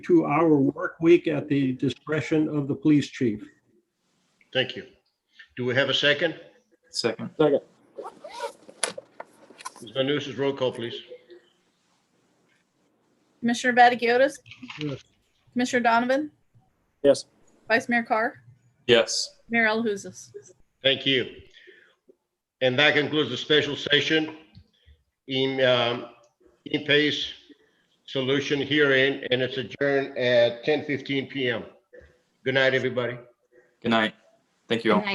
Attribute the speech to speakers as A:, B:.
A: two-hour work week at the discretion of the police chief.
B: Thank you. Do we have a second?
C: Second.
B: Ms. Van Nus, roll call, please.
D: Commissioner Vaticiotis?
A: Yes.
D: Commissioner Donovan?
E: Yes.
D: Vice Mayor Carr?
C: Yes.
D: Mayor LaHousas?
B: Thank you. And that concludes the special session in, um, in pace solution hearing, and it's adjourned at 10:15 PM. Good night, everybody.
C: Good night. Thank you all.